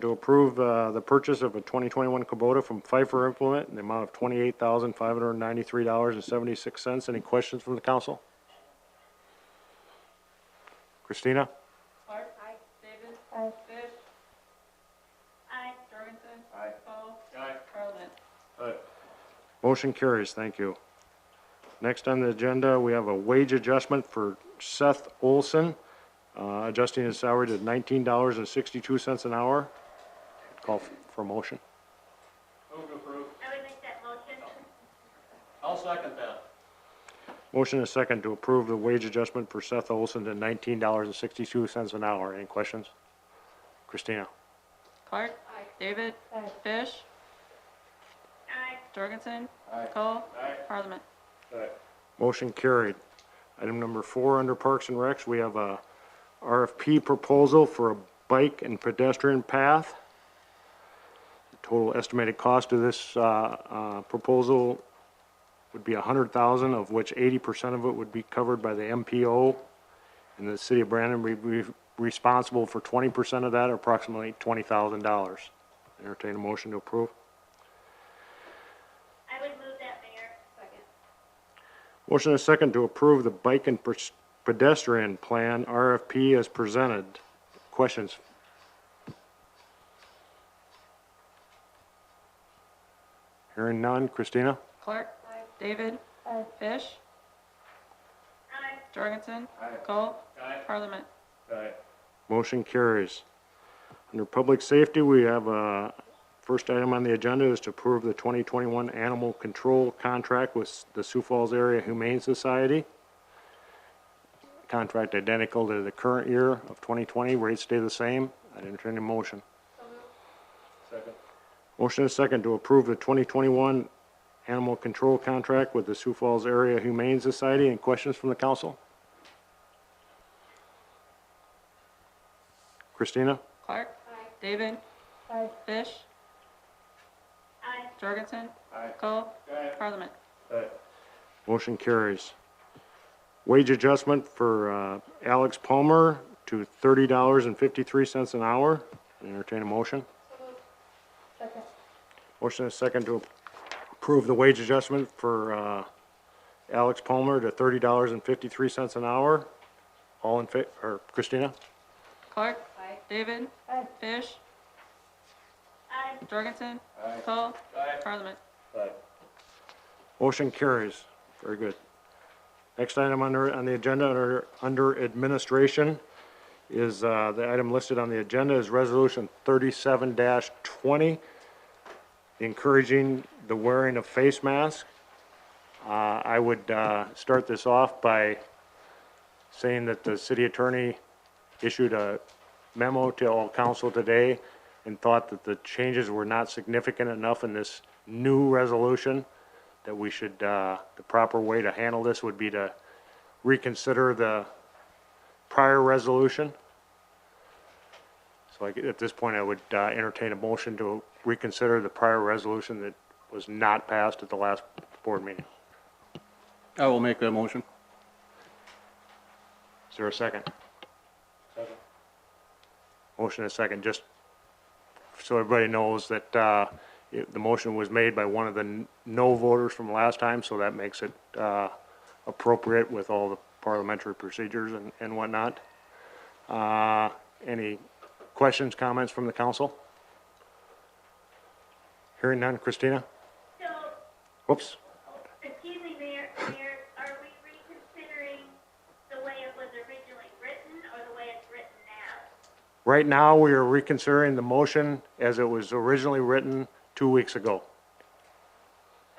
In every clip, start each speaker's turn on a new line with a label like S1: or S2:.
S1: to approve uh, the purchase of a 2021 Kubota from Pfeiffer Implement in the amount of $28,593.76. Any questions from the council? Christina?
S2: Clark. Aye. Davis. Fish. Aye. Jorgensen. Aye. Paul. Aye. Carlin.
S1: Motion carries, thank you. Next on the agenda, we have a wage adjustment for Seth Olson, uh, adjusting his salary to $19.62 an hour. Call f- for motion.
S3: Move to approve.
S4: I would make that motion.
S3: I'll second that.
S1: Motion is second to approve the wage adjustment for Seth Olson to $19.62 an hour. Any questions? Christina?
S2: Clark. Aye. David. Fish.
S4: Aye.
S2: Jorgensen. Aye. Cole. Aye. Parliament.
S1: Motion carried. Item number four, under Parks and Recs, we have a RFP proposal for a bike and pedestrian path. The Total estimated cost of this, uh, uh, proposal would be a hundred thousand, of which eighty percent of it would be covered by the MPO. And the city of Brandon would be responsible for twenty percent of that, approximately twenty thousand dollars. Entertain a motion to approve.
S4: I would move that, Mayor. Second.
S1: Motion is second to approve the bike and pers- pedestrian plan RFP as presented. Questions? Hearing none. Christina?
S2: Clark. Aye. David. Aye. Fish.
S4: Aye.
S2: Jorgensen. Aye. Cole.
S3: Aye.
S2: Parliament.
S3: Aye.
S1: Motion carries. Under public safety, we have a, first item on the agenda is to approve the 2021 animal control contract with the Sioux Falls Area Humane Society. Contract identical to the current year of 2020, rates stay the same. I'd entertain a motion.
S3: Second.
S1: Motion is second to approve the 2021 animal control contract with the Sioux Falls Area Humane Society. Any questions from the council? Christina?
S2: Clark. Aye. David. Aye. Fish.
S4: Aye.
S2: Jorgensen.
S3: Aye.
S2: Cole.
S3: Aye.
S2: Parliament.
S3: Aye.
S1: Motion carries. Wage adjustment for uh, Alex Palmer to $30.53 an hour. Entertain a motion. Motion is second to approve the wage adjustment for uh, Alex Palmer to $30.53 an hour. All in fa, or Christina?
S2: Clark. Aye. David. Aye. Fish.
S4: Aye.
S2: Jorgensen. Aye. Cole.
S3: Aye.
S2: Parliament.
S3: Aye.
S1: Motion carries. Very good. Next item under, on the agenda, under, under administration, is, uh, the item listed on the agenda is Resolution thirty-seven twenty, encouraging the wearing of face masks. Uh, I would, uh, start this off by saying that the city attorney issued a memo to all council today and thought that the changes were not significant enough in this new resolution that we should, uh, the proper way to handle this would be to reconsider the prior resolution. So I, at this point, I would uh, entertain a motion to reconsider the prior resolution that was not passed at the last board meeting.
S5: I will make that motion.
S1: Is there a second?
S3: Second.
S1: Motion and a second, just so everybody knows that, uh, it- the motion was made by one of the n- no voters from last time, so that makes it, uh, appropriate with all the parliamentary procedures and, and whatnot. Uh, any questions, comments from the council? Hearing none, Christina?
S4: So,
S1: Whoops,
S4: excuse me, Mayor, Mayor, are we reconsidering the way it was originally written or the way it's written now?
S1: right now, we are reconsidering the motion as it was originally written two weeks ago.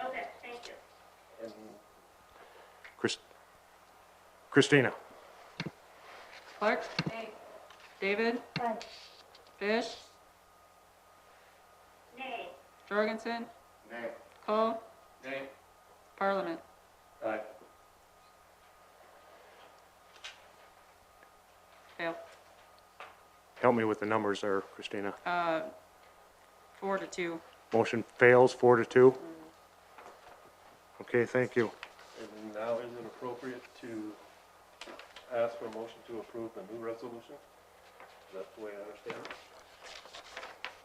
S4: Okay, thank you.
S1: Chris, Christina?
S2: Clark. Aye. David. Aye. Fish.
S4: Nay.
S2: Jorgensen.
S3: Nay.
S2: Cole.
S3: Nay.
S2: Parliament.
S3: Aye.
S2: Fail.
S1: Help me with the numbers there, Christina.
S2: Uh, four to two.
S1: Motion fails, four to two. Okay, thank you.
S3: And now is it appropriate to ask for a motion to approve the new resolution? Is that the way I understand it?